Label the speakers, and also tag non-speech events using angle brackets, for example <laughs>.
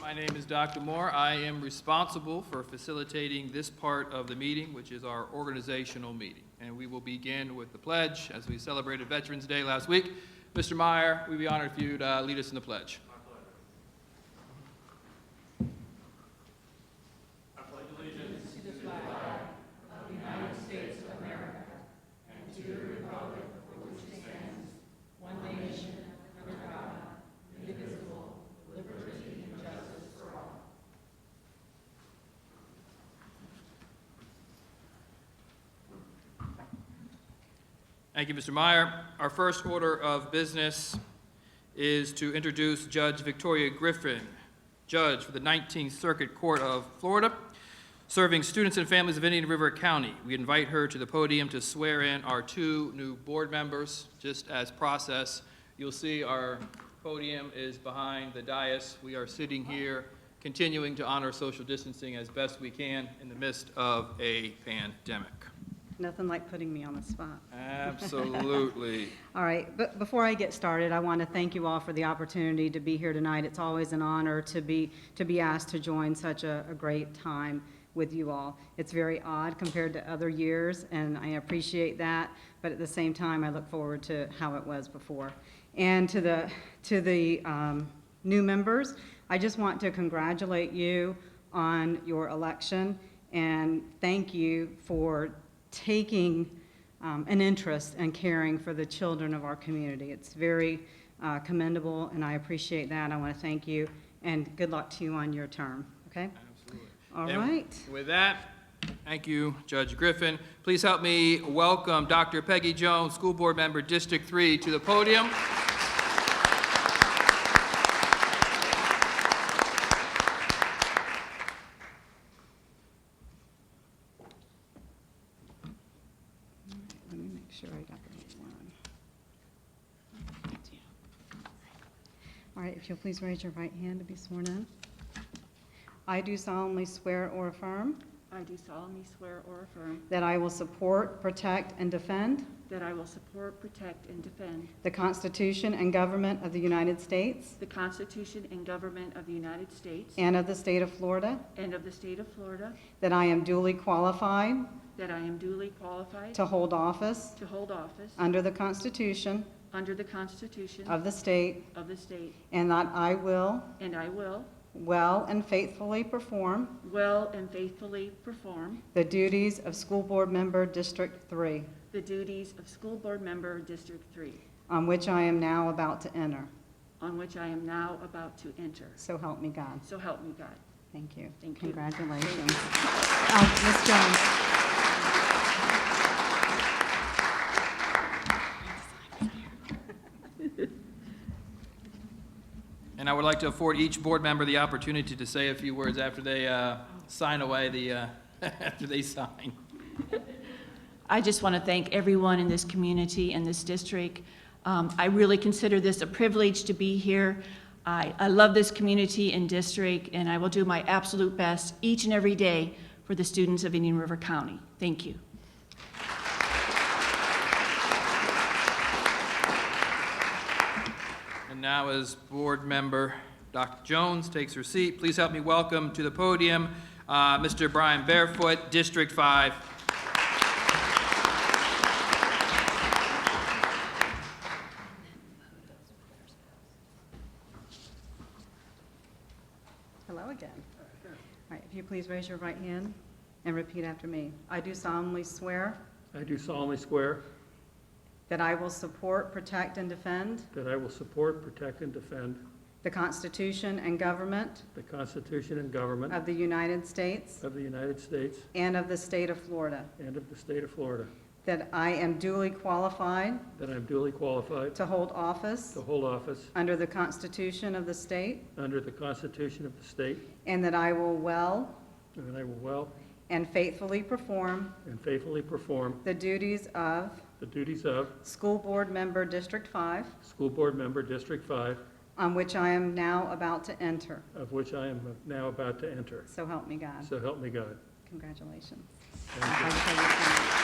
Speaker 1: My name is Dr. Moore. I am responsible for facilitating this part of the meeting, which is our organizational meeting. And we will begin with the pledge, as we celebrated Veterans Day last week. Mr. Meyer, we'd be honored if you'd uh, lead us in the pledge. Thank you, Mr. Meyer. Our first order of business is to introduce Judge Victoria Griffin, Judge for the 19th Circuit Court of Florida, serving students and families of Indian River County. We invite her to the podium to swear in our two new board members. Just as process, you'll see our podium is behind the dais. We are sitting here continuing to honor social distancing as best we can in the midst of a pandemic.
Speaker 2: Nothing like putting me on the spot.
Speaker 1: Absolutely.
Speaker 2: All right, but before I get started, I want to thank you all for the opportunity to be here tonight. It's always an honor to be, to be asked to join such a, a great time with you all. It's very odd compared to other years, and I appreciate that, but at the same time, I look forward to how it was before. And to the, to the um, new members, I just want to congratulate you on your election and thank you for taking um, an interest in caring for the children of our community. It's very uh, commendable, and I appreciate that. I want to thank you, and good luck to you on your term, okay?
Speaker 1: Absolutely.
Speaker 2: All
Speaker 1: And
Speaker 2: right.
Speaker 1: With that, thank you, Judge Griffin. Please help me welcome Dr. Peggy Jones, School Board Member, District 3, to the podium.
Speaker 2: Let me make sure I got the right one. All right, if you'll please raise your right hand to be sworn in. I do solemnly swear or affirm
Speaker 3: I do solemnly swear or affirm
Speaker 2: that I will support, protect, and defend
Speaker 3: that I will support, protect, and defend
Speaker 2: the Constitution and government of the United States
Speaker 3: the Constitution and government of the United States
Speaker 2: and of the state of Florida,
Speaker 3: and of the state of Florida,
Speaker 2: that I am duly qualified
Speaker 3: that I am duly qualified
Speaker 2: to hold office
Speaker 3: to hold office
Speaker 2: under the Constitution
Speaker 3: under the Constitution
Speaker 2: of the state,
Speaker 3: of the state,
Speaker 2: and that I will
Speaker 3: and I will
Speaker 2: well and faithfully perform
Speaker 3: well and faithfully perform
Speaker 2: the duties of School Board Member District 3,
Speaker 3: the duties of school board member, District 3,
Speaker 2: on which I am now about to enter.
Speaker 3: on which I am now about to enter.
Speaker 2: So help me God.
Speaker 3: So help me God.
Speaker 2: Thank you.
Speaker 3: Thank you.
Speaker 2: Congratulations. Uh, Ms. Jones.
Speaker 1: And I would like to afford each board member the opportunity to say a few words after they uh, sign away the, uh, <laughs> after they sign.
Speaker 4: I just want to thank everyone in this community and this district. Um, I really consider this a privilege to be here. I, I love this community and district, and I will do my absolute best each and every day for the students of Indian River County. Thank you.
Speaker 1: And now, as Board Member Dr. Jones takes her seat, please help me welcome to the podium uh, Mr. Brian Barefoot, District 5.
Speaker 2: Hello again. All right, if you please raise your right hand and repeat after me. I do solemnly swear
Speaker 5: I do solemnly swear
Speaker 2: that I will support, protect, and defend
Speaker 5: that I will support, protect, and defend
Speaker 2: the Constitution and government
Speaker 5: the Constitution and government
Speaker 2: of the United States
Speaker 5: of the United States
Speaker 2: and of the state of Florida,
Speaker 5: and of the state of Florida,
Speaker 2: that I am duly qualified
Speaker 5: that I am duly qualified
Speaker 2: to hold office
Speaker 5: to hold office
Speaker 2: under the Constitution of the state,
Speaker 5: under the Constitution of the state,
Speaker 2: and that I will well
Speaker 5: and that I will well
Speaker 2: and faithfully perform
Speaker 5: and faithfully perform
Speaker 2: the duties of
Speaker 5: the duties of
Speaker 2: School Board Member District 5,
Speaker 5: School Board Member District 5,
Speaker 2: on which I am now about to enter.
Speaker 5: of which I am now about to enter.
Speaker 2: So help me God.
Speaker 5: So help me God.
Speaker 2: Congratulations.
Speaker 5: Thank you.
Speaker 2: Thank you.